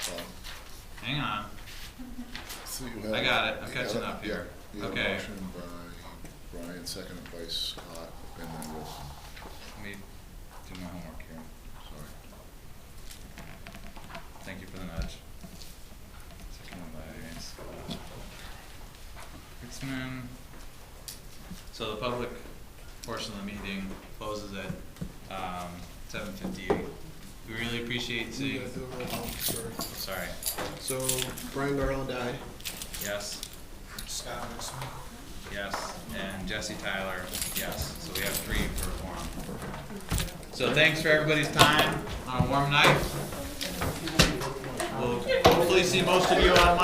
Hang on, So you have- I got it. I'm you have catching a- up here. yeah, You have a Okay. motion by Brian, seconded by Scott, and then Wilson, let me do my homework here. sorry. Thank you for the nudge. Second one by Scott. Kritzman. So the public portion of the meeting closes at, um, seven fifty-eight. We really appreciate seeing, sorry, So Brian Barlow died. yes, Scott Nixon. yes, and Jesse Tyler, yes, so we have three for a forum. So thanks for everybody's time on a warm night. We'll hopefully see most of you on Monday.